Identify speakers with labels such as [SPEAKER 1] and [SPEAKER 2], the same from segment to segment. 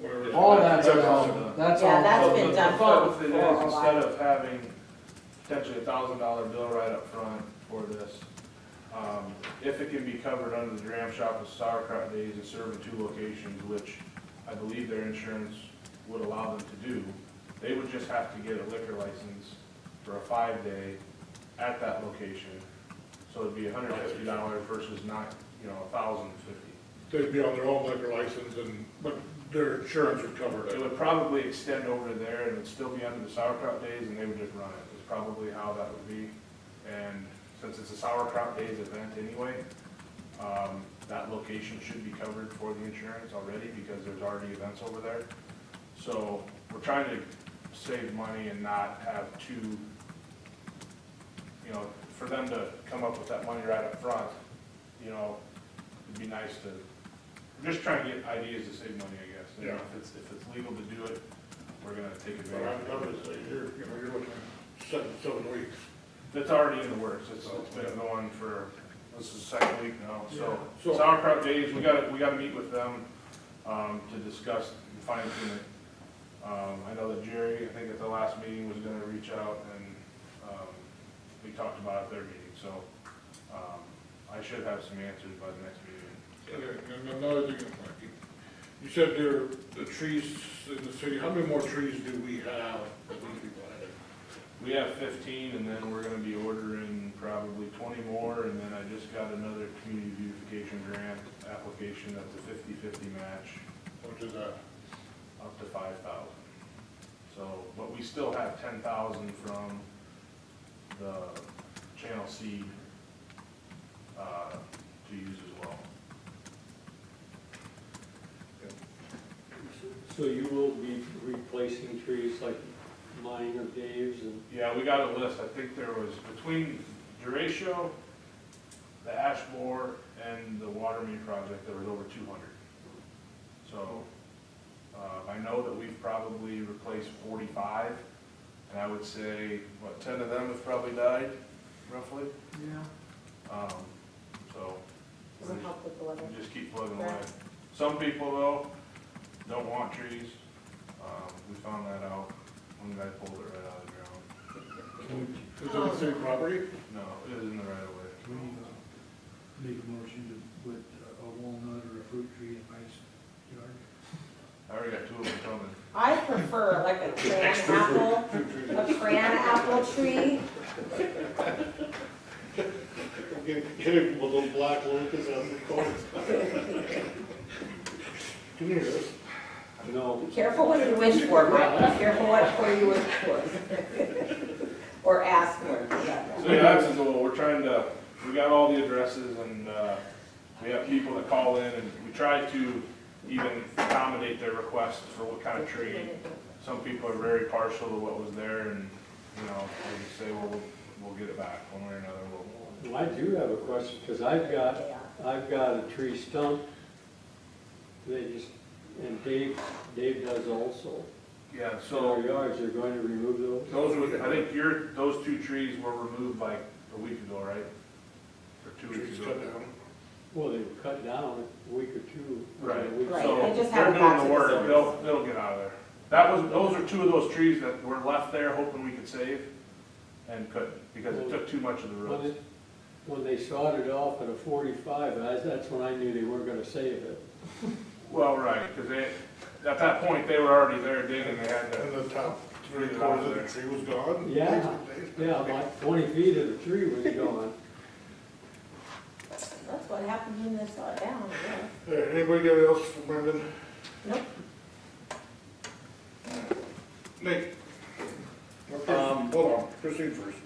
[SPEAKER 1] whatever.
[SPEAKER 2] All that's
[SPEAKER 1] that's
[SPEAKER 2] all, that's all.
[SPEAKER 3] Yeah, that's been
[SPEAKER 1] The-
[SPEAKER 3] done
[SPEAKER 1] The thought with
[SPEAKER 3] for-
[SPEAKER 1] it
[SPEAKER 3] for a
[SPEAKER 1] is, instead
[SPEAKER 3] while.
[SPEAKER 1] of having potentially a thousand dollar bill right up front for this, um, if it can be covered under the dram shop with sauerkraut days and serve in two locations, which I believe their insurance would allow them to do, they would just have to get a liquor license for a five day at that location. So it'd be hundred fifty dollars versus not, you know, a thousand fifty.
[SPEAKER 4] They'd be on their own liquor license and, but their insurance would cover
[SPEAKER 1] It
[SPEAKER 4] it.
[SPEAKER 1] would probably extend over there and it'd still be under the sauerkraut days and they would just run it, is probably how that would be. And since it's a sauerkraut days event anyway, um, that location should be covered for the insurance already because there's already events over there. So we're trying to save money and not have two, you know, for them to come up with that money right up front, you know, it'd be nice to, we're just trying to get ideas to save money, I guess. You know, If it's, if it's legal to do it, we're gonna take
[SPEAKER 4] But I'm,
[SPEAKER 1] advantage.
[SPEAKER 4] I'm
[SPEAKER 1] of
[SPEAKER 4] gonna
[SPEAKER 1] it.
[SPEAKER 4] say, you're, you know, you're looking at seven, seven weeks.
[SPEAKER 1] It's already in the works, it's, it's been going for, this is the second week now, so.
[SPEAKER 4] Yeah. So-
[SPEAKER 1] Sauerkraut Days, we gotta, we gotta meet with them, um, to discuss and fine tune it. Um, I know that Jerry, I think at the last meeting, was gonna reach out and, um, we talked about it at their meeting, so, um, I should have some answers by the next meeting.
[SPEAKER 4] Okay, and another thing, like, you- you said there, are the trees in the city, how many more trees do we have that we could plant?
[SPEAKER 1] We have fifteen, and then we're gonna be ordering probably twenty more, and then I just got another community beautification grant application that's a fifty-fifty match.
[SPEAKER 4] What is that?
[SPEAKER 1] up to five thousand. So, but we still have ten thousand from the Channel Seed, uh, to use as well.
[SPEAKER 5] So you will be replacing trees like mine or Dave's and
[SPEAKER 1] Yeah, we got a list, I think there was between Duratio, the ash borer, and the water main project, there was over two hundred. So, uh, I know that we've probably replaced forty-five, and I would say, what, ten of them have probably died, roughly?
[SPEAKER 2] Yeah.
[SPEAKER 1] Um, so, we
[SPEAKER 3] Doesn't help with the weather.
[SPEAKER 1] just keep plugging away. Some people though, don't want trees, um, we found that out, one guy pulled it right out of the ground.
[SPEAKER 4] Is it the city property?
[SPEAKER 1] No, it isn't the right of way.
[SPEAKER 6] We need to make a motion to put a walnut or a fruit tree in my yard.
[SPEAKER 1] I already got two of them coming.
[SPEAKER 3] I prefer like a cran apple, a cran apple tree.
[SPEAKER 4] Get him with those black locusts out of the corner. Come here, this.
[SPEAKER 5] no,
[SPEAKER 3] Be careful what you wish for, Mike, be careful what for you wish for. Or ask for, for that matter.
[SPEAKER 1] So yeah, that's the goal, we're trying to, we got all the addresses and, uh, we have people that call in and we try to even accommodate their requests for what kind of tree. Some people are very partial to what was there and, you know, they just say, well, we'll- we'll get it back one way or another, we'll,
[SPEAKER 5] I do have a question, because I've got,
[SPEAKER 3] They are.
[SPEAKER 5] I've got a tree stump. They just, and Dave, Dave does also.
[SPEAKER 1] Yeah,
[SPEAKER 5] In our
[SPEAKER 1] so
[SPEAKER 5] yards, you're going to remove those?
[SPEAKER 1] those were, I think your, those two trees were removed like a week ago, right? Or two weeks
[SPEAKER 4] Trees
[SPEAKER 1] ago.
[SPEAKER 4] cut down.
[SPEAKER 5] Well, they were cut down a week or two. or a
[SPEAKER 1] Right,
[SPEAKER 5] week.
[SPEAKER 3] Right.
[SPEAKER 1] so
[SPEAKER 3] they just
[SPEAKER 1] they're
[SPEAKER 3] haven't
[SPEAKER 1] doing
[SPEAKER 3] got
[SPEAKER 1] the
[SPEAKER 3] to the
[SPEAKER 1] work,
[SPEAKER 3] service.
[SPEAKER 1] they'll, they'll get out of there. That was, those are two of those trees that were left there hoping we could save and couldn't because it took too much of the
[SPEAKER 5] When
[SPEAKER 1] roots.
[SPEAKER 5] it, when they sawed it off at a forty-five, I- that's when I knew they weren't gonna save it.
[SPEAKER 1] Well, right, because they, at that point, they were already there digging, they had
[SPEAKER 4] And
[SPEAKER 1] to,
[SPEAKER 4] the top three quarters of the tree was gone?
[SPEAKER 5] Yeah, yeah, like twenty feet of the tree was gone.
[SPEAKER 3] That's what happened when they saw it down, yeah.
[SPEAKER 4] Hey, Anybody else for Brendan?
[SPEAKER 3] Nope.
[SPEAKER 4] Nate? Okay,
[SPEAKER 7] Um,
[SPEAKER 4] Hold on, Christine first.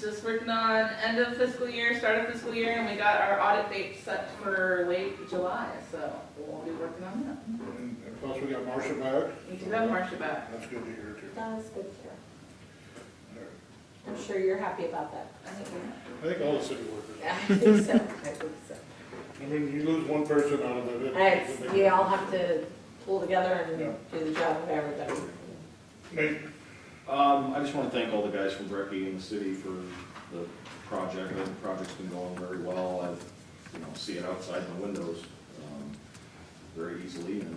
[SPEAKER 8] Just working on end of fiscal year, start of fiscal year, and we got our audit date set for late July, so we'll be working on
[SPEAKER 4] And and plus we got Marcia back.
[SPEAKER 8] that. We do have Marcia back.
[SPEAKER 4] That's good to hear too.
[SPEAKER 3] That was good here. I'm sure you're happy about that.
[SPEAKER 8] I think we're-
[SPEAKER 4] I think all the city workers.
[SPEAKER 3] I think so, I think so.
[SPEAKER 4] I mean, you lose one person out of it. it-
[SPEAKER 3] And it's- we all have to pull together and
[SPEAKER 4] Yeah.
[SPEAKER 3] do the job of everybody.
[SPEAKER 4] Nate,
[SPEAKER 7] Um, I just want to thank all the guys from Brecky and the city for the project. I think The project's been going very well. I, you know, see it outside my windows, um, very easily and